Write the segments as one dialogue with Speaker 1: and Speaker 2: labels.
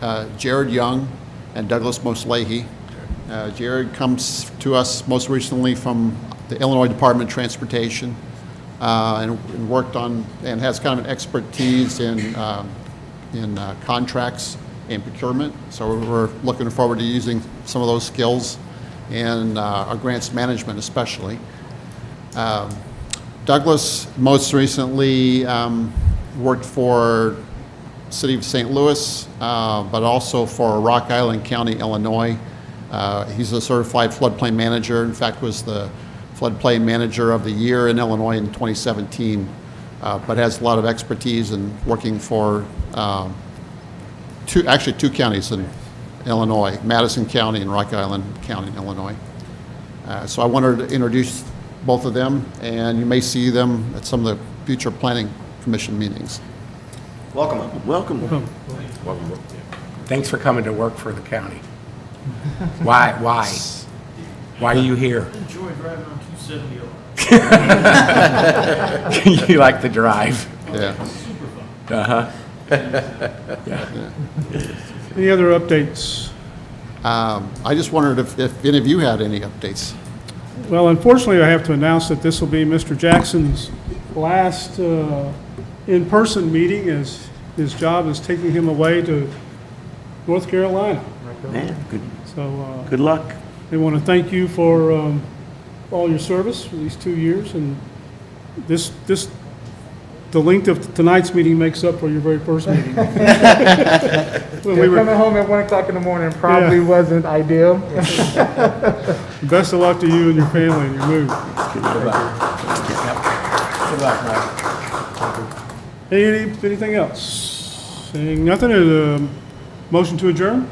Speaker 1: uh, Jared Young and Douglas Mosleahy. Uh, Jared comes to us most recently from the Illinois Department of Transportation uh, and and worked on, and has kind of an expertise in, um, in uh, contracts and procurement. So we're looking forward to using some of those skills in uh, our grants management especially. Douglas most recently um, worked for City of St. Louis, uh, but also for Rock Island County, Illinois. Uh, He's a certified floodplain manager, in fact, was the floodplain manager of the year in Illinois in 2017, uh, but has a lot of expertise in working for um, two, actually two counties in Illinois, Madison County and Rock Island County, Illinois. Uh, So I wanted to introduce both of them, and you may see them at some of the future planning commission meetings.
Speaker 2: Welcome.
Speaker 3: Welcome.
Speaker 4: Thanks for coming to work for the county. Why, why? Why are you here?
Speaker 5: Enjoy driving on 270 a lot.
Speaker 4: You like the drive.
Speaker 1: Yeah.
Speaker 5: Super fun.
Speaker 3: Any other updates?
Speaker 1: Um, I just wondered if, if any of you had any updates.
Speaker 3: Well, unfortunately, I have to announce that this will be Mr. Jackson's last uh, in-person meeting as his job is taking him away to North Carolina.
Speaker 2: Man, good,
Speaker 3: So uh,
Speaker 2: good luck.
Speaker 3: they want to thank you for um, all your service for these two years, and this, this, the length of tonight's meeting makes up for your very first meeting. When we
Speaker 6: They're
Speaker 3: were-
Speaker 6: coming home at one o'clock in the morning probably wasn't ideal.
Speaker 3: Best of luck to you and your family and your move.
Speaker 4: Good luck, Mike.
Speaker 3: Any, anything else? Saying nothing, uh, um, motion to adjourn?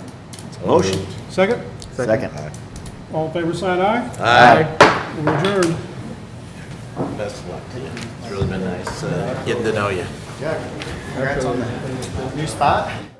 Speaker 2: Motion.
Speaker 3: Second?
Speaker 2: Second.
Speaker 3: All in favor, sign aye.
Speaker 2: Aye.
Speaker 3: We're adjourned.
Speaker 2: Best of luck to you. It's really been nice uh, getting to know you.
Speaker 6: Jack,
Speaker 2: New spot?